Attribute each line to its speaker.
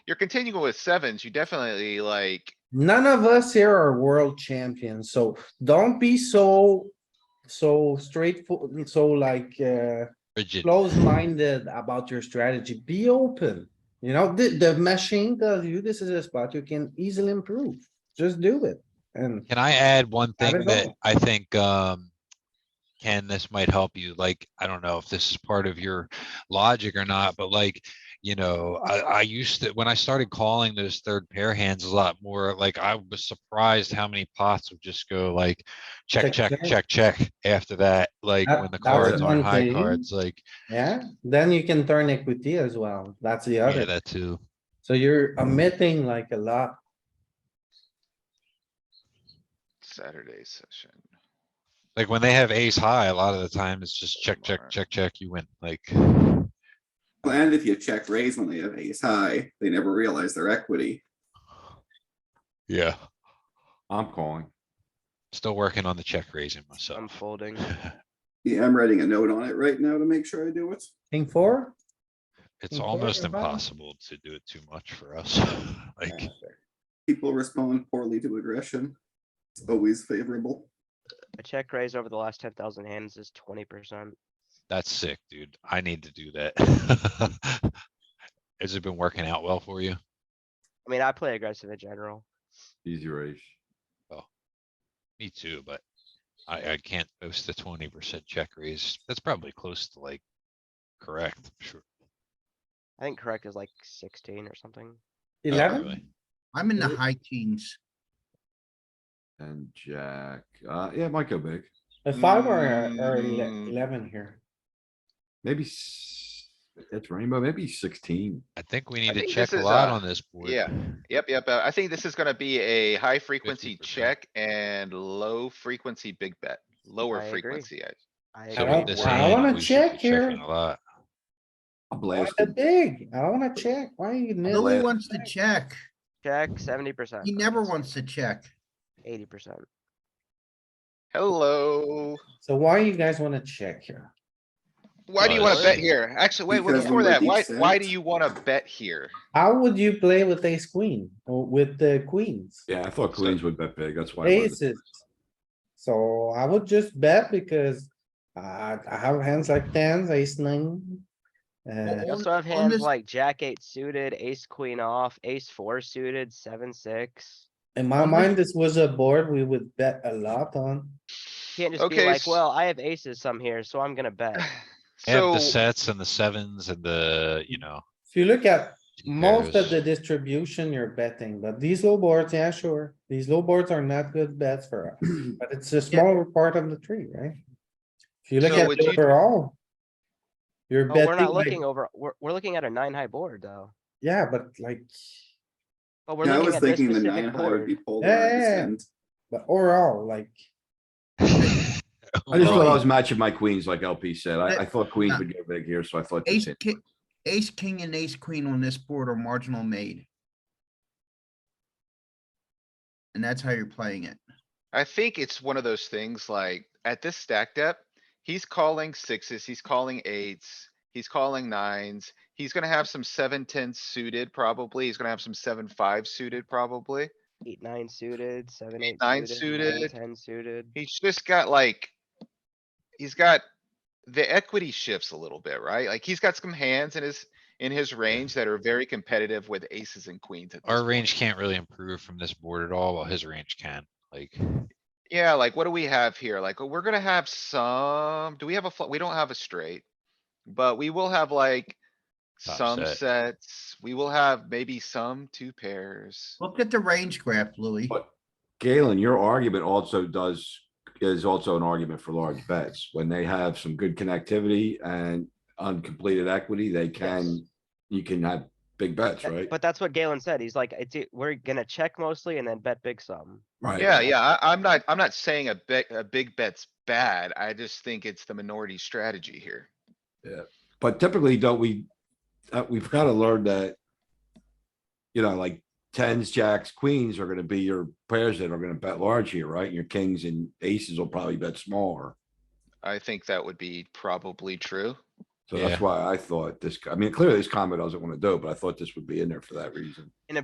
Speaker 1: you're continuing with sevens, you definitely like,
Speaker 2: None of us here are world champions, so don't be so, so straightforward, so like, uh,
Speaker 3: Rigid.
Speaker 2: close-minded about your strategy. Be open. You know, the, the machine tells you this is a spot you can easily improve. Just do it. And
Speaker 3: Can I add one
Speaker 2: Have
Speaker 3: thing
Speaker 2: it
Speaker 3: that
Speaker 2: all.
Speaker 3: I think, um, Ken, this might help you, like, I don't know if this is part of your logic or not, but like, you know, I, I used to, when I started calling those third pair hands a lot more, like, I was surprised how many pots would just go like, check,
Speaker 2: Check,
Speaker 3: check,
Speaker 2: check.
Speaker 3: check, check, after that, like,
Speaker 2: That-
Speaker 3: when the
Speaker 2: that's
Speaker 3: cards
Speaker 2: one
Speaker 3: aren't high
Speaker 2: thing.
Speaker 3: cards, like,
Speaker 2: yeah, then you can turn equity as well. That's the
Speaker 3: yeah,
Speaker 2: other.
Speaker 3: that too.
Speaker 2: So you're omitting like a lot.
Speaker 1: Saturday session.
Speaker 3: Like, when they have ace high, a lot of the time, it's just check, check,
Speaker 1: Mar.
Speaker 3: check, check, you win, like,
Speaker 4: Well, And if you check raise when they have ace high, they never realize their equity.
Speaker 3: yeah,
Speaker 5: I'm calling.
Speaker 3: still working on the check raising
Speaker 6: I'm
Speaker 3: myself.
Speaker 6: folding.
Speaker 4: Yeah, I'm writing a note on it right now to make sure I do it.
Speaker 2: King four?
Speaker 3: It's
Speaker 2: Think
Speaker 3: almost
Speaker 2: about it.
Speaker 3: impossible to do it too much for us. Like,
Speaker 4: People respond poorly to aggression. It's always favorable.
Speaker 6: A check raise over the last ten thousand hands is twenty percent.
Speaker 3: that's sick, dude. I need to do that. Has it been working out well for you?
Speaker 6: I mean, I play aggressive in general.
Speaker 5: Easy raise.
Speaker 3: Me too, but I, I can't post the twenty percent check raise. That's probably close to like correct, I'm sure.
Speaker 6: I think correct is like sixteen or something.
Speaker 3: Not
Speaker 2: Eleven?
Speaker 3: really.
Speaker 7: I'm in the
Speaker 2: Really?
Speaker 7: high teens.
Speaker 5: And jack, uh, yeah, it might go big.
Speaker 2: A five or, a- or ele-
Speaker 1: Mm.
Speaker 2: eleven here?
Speaker 5: Maybe s- it's rainbow, maybe sixteen.
Speaker 3: I think we need to
Speaker 1: think
Speaker 3: check
Speaker 1: this
Speaker 3: a
Speaker 1: is,
Speaker 3: lot
Speaker 1: uh,
Speaker 3: on this board.
Speaker 1: yeah. Yep, yep. uh, I think this is gonna be a high frequency
Speaker 3: 50%.
Speaker 1: check and low frequency big bet, lower
Speaker 6: I agree.
Speaker 1: frequency. I-
Speaker 6: I
Speaker 3: So
Speaker 6: agree.
Speaker 3: with
Speaker 2: don't-
Speaker 3: this
Speaker 2: I
Speaker 3: hand,
Speaker 2: wanna
Speaker 3: we should be
Speaker 2: check here.
Speaker 3: checking A lot.
Speaker 5: I'm
Speaker 2: I want
Speaker 5: blasting.
Speaker 2: a big. I wanna check. Why are you?
Speaker 7: Louis
Speaker 2: nitpicking?
Speaker 7: wants to check.
Speaker 6: Check seventy percent.
Speaker 7: He never wants to check.
Speaker 6: Eighty percent.
Speaker 1: Hello.
Speaker 2: So why you guys wanna check here?
Speaker 1: Why do you wanna
Speaker 3: Nice.
Speaker 1: bet here? Actually, wait, wait,
Speaker 4: Because
Speaker 1: before
Speaker 4: we were
Speaker 1: that, why,
Speaker 4: decent.
Speaker 1: why do you wanna bet here?
Speaker 2: How would you play with ace queen or with the queens?
Speaker 5: Yeah, I thought
Speaker 1: So-
Speaker 5: queens would bet big, that's why. I wanted to-
Speaker 2: Aces. So I would just bet because I, I have hands like tens, ace nine. Uh,
Speaker 6: I
Speaker 7: On-
Speaker 6: also have
Speaker 7: on
Speaker 6: hands
Speaker 7: this-
Speaker 6: like jack eight suited, ace queen off, ace four suited, seven, six.
Speaker 2: in my mind, this was a board we would bet a lot on.
Speaker 6: Can't just be
Speaker 1: Okay,
Speaker 6: like,
Speaker 1: s-
Speaker 6: well, I have aces some here, so I'm gonna bet.
Speaker 3: I Have
Speaker 1: So,
Speaker 3: the sets and the sevens and the, you know.
Speaker 2: If you look at most of
Speaker 3: pairs.
Speaker 2: the distribution, you're betting, but these low boards, yeah, sure. These low boards are not good bets for us, but it's a smaller part of the tree, right? If you look
Speaker 1: So
Speaker 2: at
Speaker 1: would
Speaker 2: it
Speaker 1: you-
Speaker 2: overall. You're
Speaker 6: Oh,
Speaker 2: betting.
Speaker 6: we're not
Speaker 2: like-
Speaker 6: looking over, we're, we're looking at a nine high board though.
Speaker 2: Yeah, but like,
Speaker 6: But we're
Speaker 4: Yeah, I
Speaker 6: looking
Speaker 4: was
Speaker 6: at this
Speaker 4: thinking the nine
Speaker 6: specific
Speaker 4: high would be
Speaker 6: board.
Speaker 4: polarized
Speaker 2: yeah, yeah.
Speaker 4: and
Speaker 2: but overall, like,
Speaker 5: I just thought I
Speaker 3: Overall,
Speaker 5: was matching my queens like LP said. I, I thought queens
Speaker 7: Uh,
Speaker 5: would go big here, so I thought. just
Speaker 7: Ace,
Speaker 5: hit-
Speaker 7: ki- ace, king and ace queen on this board are marginal made. And that's how you're playing it.
Speaker 1: I think it's one of those things like, at this stack depth, he's calling sixes, he's calling eights, he's calling nines. He's gonna have some seven, ten suited probably. He's gonna have some seven, five suited probably.
Speaker 6: Eight, nine suited, seven, eight.
Speaker 1: nine
Speaker 6: nine,
Speaker 1: suited.
Speaker 6: Ten suited.
Speaker 1: He's just got like. He's got the equity shifts a little bit, right? Like he's got some hands in his, in his range that are very competitive with aces and queens. at this
Speaker 3: Our
Speaker 1: point.
Speaker 3: range can't really improve from this board at all, while his range can, like.
Speaker 1: Yeah, like what do we have here? Like, we're gonna have some, do we have a, fl- we don't have a straight. But we will have like
Speaker 3: Top
Speaker 1: some
Speaker 3: set.
Speaker 1: sets. We will have maybe some two pairs.
Speaker 7: Look at the range graph, Louis.
Speaker 5: But Galen, your argument also does, is also an argument for large bets. When they have some good connectivity and uncompleted equity, they can, you can have big bets,
Speaker 6: That-
Speaker 5: right?
Speaker 6: But that's what Galen said. He's like, it's, e- we're gonna check mostly and then bet big sum.
Speaker 5: Right.
Speaker 1: Yeah, yeah, I, I'm not, I'm not saying a bet, a big bet's bad. I just think it's the minority strategy here.
Speaker 5: But typically, don't we, uh, we've got to learn that, you know, like tens, jacks, queens are gonna be your pairs that are gonna bet large here, right? Your kings and aces will probably bet smaller.
Speaker 1: I think that would be probably true.
Speaker 5: So that's why I thought this, I mean, clearly this combo doesn't want to do, it, but I thought this would be in there for that reason.